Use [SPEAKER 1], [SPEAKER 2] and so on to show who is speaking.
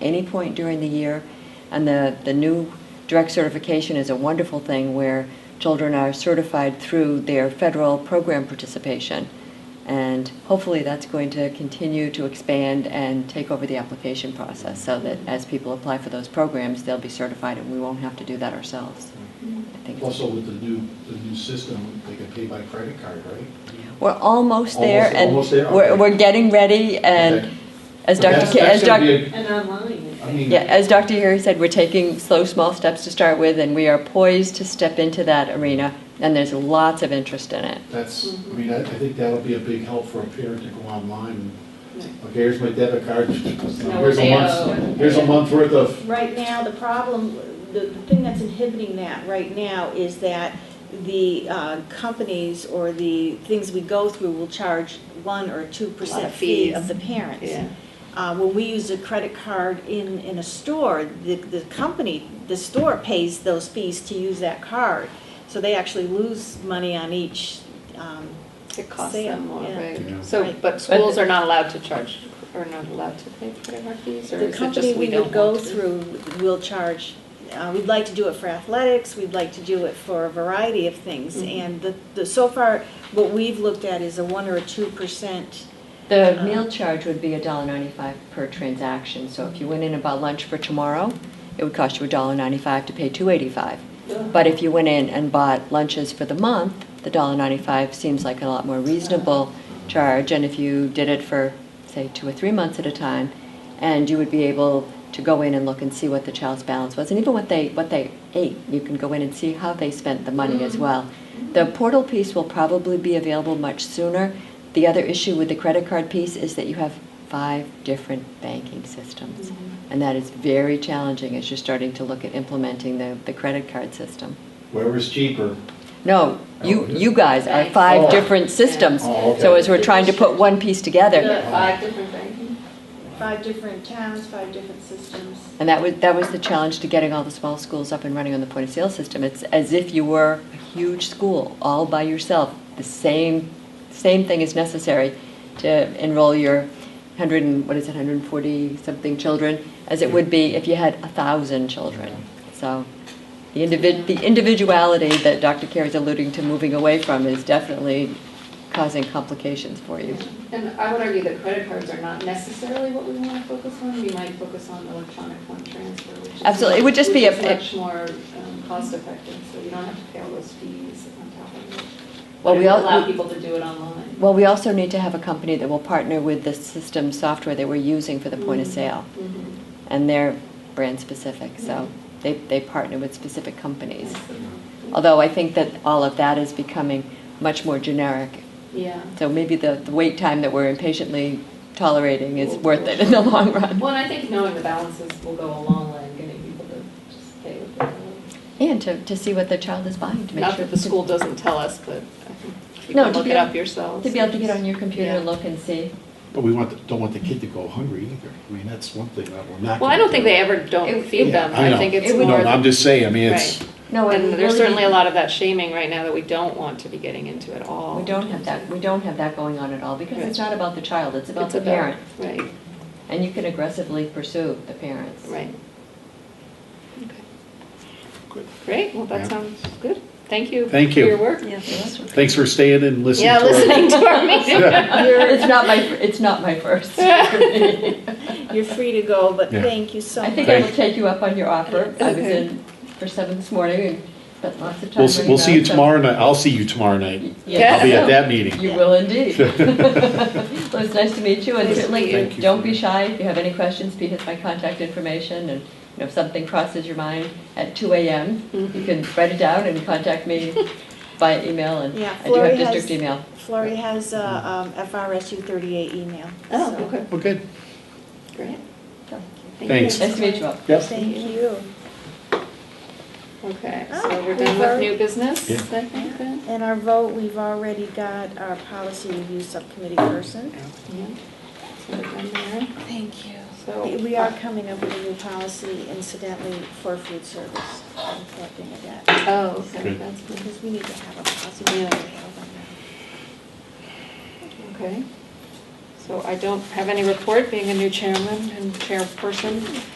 [SPEAKER 1] any point during the year. And the, the new direct certification is a wonderful thing where children are certified through their federal program participation. And hopefully that's going to continue to expand and take over the application process so that as people apply for those programs, they'll be certified and we won't have to do that ourselves. I think it's-
[SPEAKER 2] Also with the new, the new system, they can pay by credit card, right?
[SPEAKER 1] We're almost there
[SPEAKER 2] Almost-
[SPEAKER 1] and
[SPEAKER 2] almost there,
[SPEAKER 1] we're,
[SPEAKER 2] okay.
[SPEAKER 1] we're getting ready and
[SPEAKER 2] Okay.
[SPEAKER 1] as
[SPEAKER 2] But
[SPEAKER 1] Dr.
[SPEAKER 2] that's-
[SPEAKER 1] Ki- as
[SPEAKER 2] that's gonna
[SPEAKER 1] Dr.
[SPEAKER 2] be a-
[SPEAKER 3] And online, I
[SPEAKER 2] I
[SPEAKER 3] think.
[SPEAKER 2] mean-
[SPEAKER 1] Yeah, as Dr. Harry said, we're taking slow, small steps to start with, and we are poised to step into that arena, and there's lots of interest in it.
[SPEAKER 2] That's, I mean, I I think that'll be a big help for a parent to go online.
[SPEAKER 3] Right.
[SPEAKER 2] and Okay, here's my debit card. Here's a
[SPEAKER 3] they
[SPEAKER 2] month,
[SPEAKER 3] owe.
[SPEAKER 2] here's a month worth of,
[SPEAKER 4] Right now, the problem, the the thing that's inhibiting that right now is that the uh, companies or the things we go through will charge one or two
[SPEAKER 3] Lot
[SPEAKER 4] percent
[SPEAKER 3] of
[SPEAKER 4] fee
[SPEAKER 3] fees.
[SPEAKER 4] of the parents.
[SPEAKER 3] Yeah.
[SPEAKER 4] Uh, When we use a credit card in, in a store, the, the company, the store pays those fees to use that card. So they actually lose money on each, um,
[SPEAKER 3] It costs
[SPEAKER 4] Sale,
[SPEAKER 3] them more,
[SPEAKER 4] yeah.
[SPEAKER 2] Yeah.
[SPEAKER 3] right? So,
[SPEAKER 4] Right.
[SPEAKER 3] but schools are not allowed to charge, or not allowed to pay credit card fees, or
[SPEAKER 4] the
[SPEAKER 3] is it
[SPEAKER 4] company
[SPEAKER 3] just we
[SPEAKER 4] we
[SPEAKER 3] don't
[SPEAKER 4] would go
[SPEAKER 3] want to?
[SPEAKER 4] through will charge, uh, we'd like to do it for athletics, we'd like to do it for a variety of things.
[SPEAKER 3] Mhm.
[SPEAKER 4] And the, the, so far, what we've looked at is a one or a two percent.
[SPEAKER 1] The
[SPEAKER 4] Uh-huh.
[SPEAKER 1] meal charge would be $1.95 per transaction, so if you went in and bought lunch for tomorrow, it would cost you $1.95 to pay $2.85. But if you went in and bought lunches for the month, the $1.95 seems like a lot more reasonable charge, and if you did it for, say, two or three months at a time, and you would be able to go in and look and see what the child's balance was, and even what they, what they ate, you can go in and see how they spent the money as well. The portal piece will probably be available much sooner. The other issue with the credit card piece is that you have five different banking systems. And that is very challenging as you're starting to look at implementing the, the credit card system.
[SPEAKER 2] whoever's cheaper.
[SPEAKER 1] No, you,
[SPEAKER 2] Oh, yeah.
[SPEAKER 1] you guys are
[SPEAKER 3] Banks.
[SPEAKER 1] five
[SPEAKER 2] Oh.
[SPEAKER 1] different systems.
[SPEAKER 2] Oh,
[SPEAKER 1] So
[SPEAKER 2] okay.
[SPEAKER 1] as we're trying to put one piece together,
[SPEAKER 2] Yeah.
[SPEAKER 3] Five different banking?
[SPEAKER 4] Five different towns, five different systems.
[SPEAKER 1] and that was, that was the challenge to getting all the small schools up and running on the point of sale system. It's as if you were a huge school, all by yourself. The same, same thing is necessary to enroll your hundred and, what is it, hundred and forty something children as it would be if you had a thousand children. So the individ, the individuality that Dr. Carey's alluding to moving away from is definitely causing complications for you.
[SPEAKER 3] And I would argue that credit cards are not necessarily what we want to focus on, we might focus on electronic fund transfer, which is.
[SPEAKER 1] Absolutely. It would just be a-
[SPEAKER 3] which is much more um, cost effective, so you don't have to pay all those fees on top of it.
[SPEAKER 1] Well,
[SPEAKER 3] But
[SPEAKER 1] we
[SPEAKER 3] it would
[SPEAKER 1] all-
[SPEAKER 3] Allow people to do it online.
[SPEAKER 1] Well, we also need to have a company that will partner with the system software that we're using for the point of sale.
[SPEAKER 3] Mhm.
[SPEAKER 1] And they're brand specific,
[SPEAKER 3] Mm.
[SPEAKER 1] so they, they partner with specific companies.
[SPEAKER 3] Absolutely.
[SPEAKER 1] Although I think that all of that is becoming much more generic.
[SPEAKER 3] Yeah.
[SPEAKER 1] So maybe the, the wait time that we're impatiently tolerating is worth it in the long run.
[SPEAKER 3] Well, and I think knowing the balances will go a long way in getting people to just pay with their.
[SPEAKER 1] And to, to see what the child is buying to make
[SPEAKER 3] Not
[SPEAKER 1] sure.
[SPEAKER 3] that the school doesn't tell us, but I think you
[SPEAKER 1] No,
[SPEAKER 3] can
[SPEAKER 1] to
[SPEAKER 3] look
[SPEAKER 1] be
[SPEAKER 3] it
[SPEAKER 1] able-
[SPEAKER 3] up yourselves.
[SPEAKER 1] To be able to get on your computer and
[SPEAKER 3] Yeah.
[SPEAKER 1] look and see.
[SPEAKER 5] But we want, the- don't want the kid to go hungry either. I mean, that's one thing that we're not.
[SPEAKER 3] Well, I
[SPEAKER 5] gonna
[SPEAKER 3] don't think
[SPEAKER 5] do.
[SPEAKER 3] they ever don't
[SPEAKER 1] It-
[SPEAKER 3] feed them.
[SPEAKER 5] Yeah,
[SPEAKER 3] I
[SPEAKER 5] know.
[SPEAKER 3] think it's
[SPEAKER 1] It would-
[SPEAKER 3] more.
[SPEAKER 5] No, I'm just saying, I mean, it's,
[SPEAKER 3] Right.
[SPEAKER 1] No, it
[SPEAKER 3] And
[SPEAKER 1] would
[SPEAKER 3] there's
[SPEAKER 1] really
[SPEAKER 3] certainly
[SPEAKER 1] be-
[SPEAKER 3] a lot of that shaming right now that we don't want to be getting into at all.
[SPEAKER 1] We don't have that, we don't have that going on at all, because it's
[SPEAKER 3] Right.
[SPEAKER 1] not about the child, it's about
[SPEAKER 3] It's
[SPEAKER 1] the parent.
[SPEAKER 3] Right,
[SPEAKER 1] And you can aggressively pursue the parents.
[SPEAKER 3] right. Okay.
[SPEAKER 5] Good.
[SPEAKER 3] Great, well, that
[SPEAKER 5] Yeah.
[SPEAKER 3] sounds good. Thank you.
[SPEAKER 5] Thank
[SPEAKER 3] for
[SPEAKER 5] you.
[SPEAKER 3] your work.
[SPEAKER 5] thanks for staying and listening.
[SPEAKER 3] Yeah,
[SPEAKER 5] to our-
[SPEAKER 3] listening to our meeting.
[SPEAKER 1] It's not my, it's not my first. I
[SPEAKER 4] You're free to go, but
[SPEAKER 5] Yeah.
[SPEAKER 4] thank you so much.
[SPEAKER 1] think I will take you up on your offer. I was
[SPEAKER 3] Okay.
[SPEAKER 1] in for seven this morning and spent lots of time.
[SPEAKER 5] We'll, s-
[SPEAKER 1] running
[SPEAKER 5] we'll see you
[SPEAKER 1] around, so-
[SPEAKER 5] tomorrow night. I'll see you tomorrow night.
[SPEAKER 1] Yes.
[SPEAKER 5] I'll be at that meeting.
[SPEAKER 1] You will indeed. Well, it's nice to meet you, and
[SPEAKER 3] Nice to
[SPEAKER 1] certainly,
[SPEAKER 5] Thank you.
[SPEAKER 1] don't be shy, if you have any questions, Pete has my contact information, and you know, if something crosses your mind at two AM,
[SPEAKER 5] Mm-hmm.
[SPEAKER 1] you can write it down and contact me by email, and
[SPEAKER 4] Yeah,
[SPEAKER 1] I do have
[SPEAKER 4] Florrie has-
[SPEAKER 1] district email.
[SPEAKER 4] Florrie has uh, um, FRSU 38 email.
[SPEAKER 3] Oh,
[SPEAKER 4] so-
[SPEAKER 3] okay,
[SPEAKER 5] Well, good.
[SPEAKER 3] great. Thank
[SPEAKER 5] Thanks.
[SPEAKER 3] you.
[SPEAKER 1] Nice to meet you all.
[SPEAKER 5] Yep.
[SPEAKER 4] Thank you.
[SPEAKER 3] Okay,
[SPEAKER 4] Oh,
[SPEAKER 3] so we're
[SPEAKER 4] we've
[SPEAKER 3] done with
[SPEAKER 4] already-
[SPEAKER 3] new business,
[SPEAKER 5] Yeah.
[SPEAKER 3] I think then?
[SPEAKER 4] And our vote, we've already got our policy review subcommittee person.
[SPEAKER 3] Yeah. So we're done there.
[SPEAKER 4] Thank you.
[SPEAKER 3] So-
[SPEAKER 4] We are coming up with a new policy incidentally for food service. I'm collecting it that,
[SPEAKER 3] Oh, okay,
[SPEAKER 5] Good.
[SPEAKER 3] that's good.
[SPEAKER 4] because we need to have a policy.
[SPEAKER 3] Yeah. Okay. So I don't have any report, being a new chairman and chairperson.